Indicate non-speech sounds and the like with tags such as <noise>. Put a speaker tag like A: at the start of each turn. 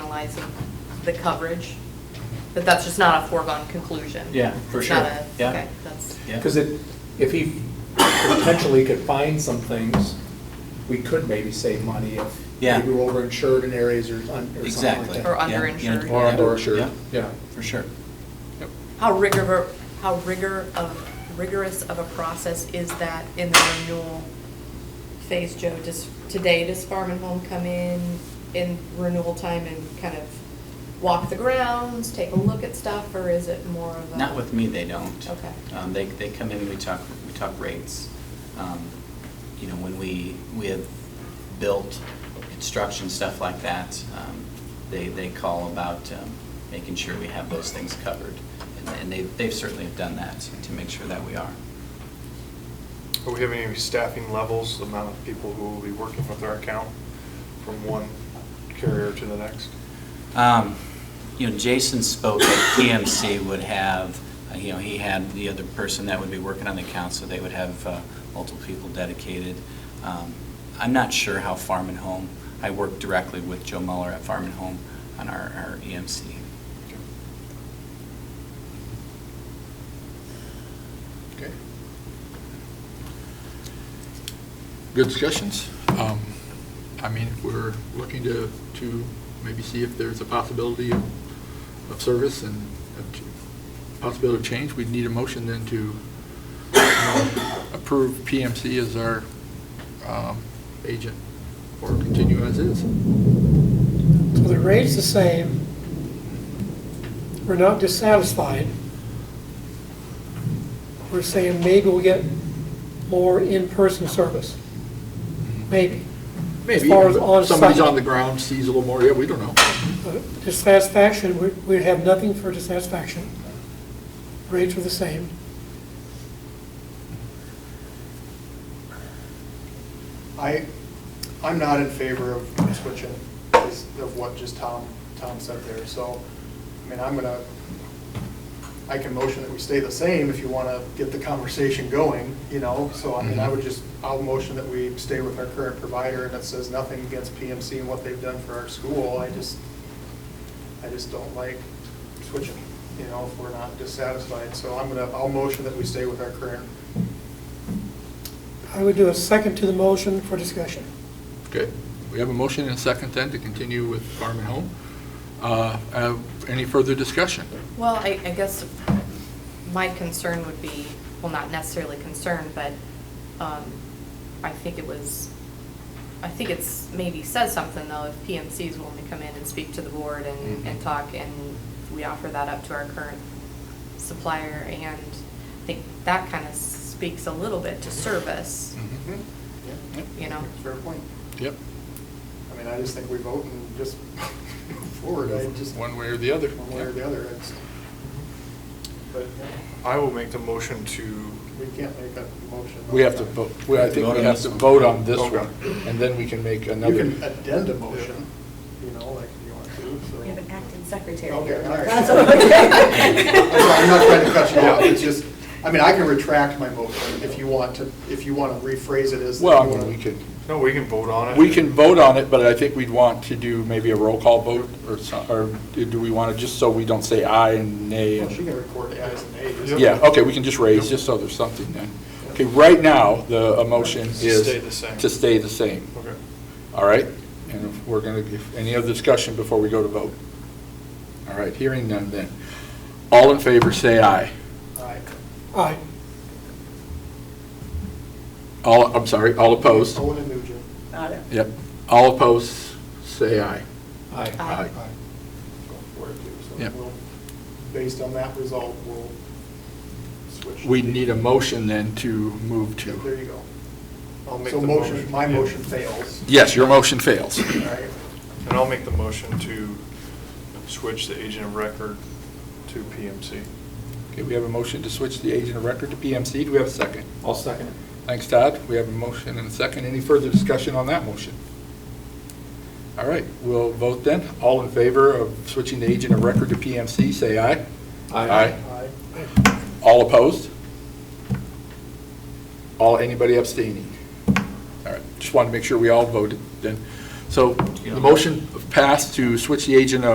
A: analyzing the coverage, that that's just not a foregone conclusion.
B: Yeah, for
A: It's not
B: sure.
A: a-
B: Yeah.
A: Okay, that's,
B: Yeah.
C: Because it, if he potentially could find some things, we could maybe save money if
B: Yeah.
C: maybe we're overinsured in areas or un- or something
B: Exactly.
C: like
A: Or
C: that.
A: un- underinsured.
B: Yeah.
A: Or
B: Yeah.
C: underinsured,
B: Yeah,
C: yeah.
B: for sure.
A: how rigor, how rigor of, rigorous of a process is that in the renewal phase, Joe? Does, today, does Farm and Home come in, in renewal time and kind of walk the grounds, take a look at stuff, or is it more of a?
B: Not with me, they don't.
A: Okay.
B: Um, They, they come in, we talk, we talk rates. Um, You know, when we, we have built construction, stuff like that, um, they, they call about um, making sure we have those things covered. And- And they, they've certainly have done that to make sure that we are.
D: Are we having any staffing levels, the amount of people who will be working with our account from one carrier to the next?
B: Um, You know, Jason spoke that PMC would have, uh, you know, he had the other person that would be working on the account, so they would have uh, multiple people dedicated. Um, I'm not sure how Farm and Home, I work directly with Joe Muller at Farm and Home on our our E EMC.
E: Okay. Good discussions. Um, I mean, if we're looking to, to maybe see if there's a possibility of of service and a ch- possibility of change, we'd need a motion then to you know, approve PMC as our um, agent or continue as is.
F: So the rate's the same. We're not dissatisfied. We're saying maybe we'll get more in-person service. Maybe.
E: Maybe,
F: As far as on-site.
E: somebody's on the ground, sees a little more, yeah, we don't know.
F: But Dissatisfaction, we- we have nothing for dissatisfaction. Rates are the same.
G: I, I'm not in favor of switching, because of what just Tom, Tom said there, so, I mean, I'm gonna, I can motion that we stay the same if you wanna get the conversation going, you know, so, I mean, I would just, I'll motion that we stay with our current provider, and it says nothing against PMC and what they've done for our school, I just, I just don't like switching, you know, if we're not dissatisfied, so I'm gonna, I'll motion that we stay with our current
F: I would do a second to the motion for discussion.
E: Okay, we have a motion and a second then to continue with Farm and Home. Uh, uh, Any further discussion?
A: Well, I, I guess my concern would be, well, not necessarily concern, but um, I think it was, I think it's maybe says something though, if PMC is willing to come in and speak to the board and, and talk, and we offer that up to our current supplier, and I think that kind of speaks a little bit to service,
E: Mhm.
G: Mm-hmm. Yeah,
A: you know?
G: Fair point.
E: Yep,
G: I mean, I just think we vote and just <laughs> move forward, I just.
E: one way or the other.
G: One way or the other, it's, but yeah,
D: I will make the motion to,
G: we can't make a motion. on
E: We have to
G: that.
E: vote, we- I think we have to vote on this one, and then we can make
G: You
E: another.
G: can addend a motion, you know, like if you want to, so.
H: We have an acting secretary.
G: Okay, all right.
H: That's okay.
G: I'm sorry, I'm not trying to cut you off, it's just, I mean, I can retract my motion if you want to, if you want to rephrase it as.
E: Well, I mean, we could,
D: no, we can vote on it.
E: we can vote on it, but I think we'd want to do maybe a roll call vote or some, or do we want to, just so we don't say aye and nay
G: Well,
E: and.
G: She can record ayes and nays.
D: Yep.
E: Yeah, okay, we can just raise, just so there's something then. Okay, right now, the uh, motion
D: To
E: is.
D: stay the same.
E: To stay the same.
D: Okay.
E: All right? And if we're going to give, any other discussion before we go to vote? All right, hearing none then. All in favor, say aye.
G: Aye.
F: Aye.
E: All, I'm sorry, all opposed?
D: Oh.
G: Owen and Nugent.
H: Got it.
E: Yep. All opposed, say aye.
C: Aye.
A: Aye.
G: go for it too. So
E: Yep.
G: we'll, based on that result, we'll switch.
E: We need a motion then to move
G: Yeah, There
E: to.
G: you go.
D: I'll make
G: So
D: the
G: motion, my
D: Yeah.
G: motion fails.
E: Yes, your motion fails.
G: All right.
D: And I'll make the motion to switch the agent of record to PMC.
E: Okay, we have a motion to switch the agent of record to PMC. Do we have a second?
C: I'll second it.
E: Thanks, Todd. We have a motion and a second. Any further discussion on that motion? All right, we'll vote then. All in favor of switching the agent of record to PMC, say aye. Aye.
G: Aye.
E: All opposed? All, anybody abstaining? All right, just wanted to make sure we all voted then. So the motion passed to switch the agent of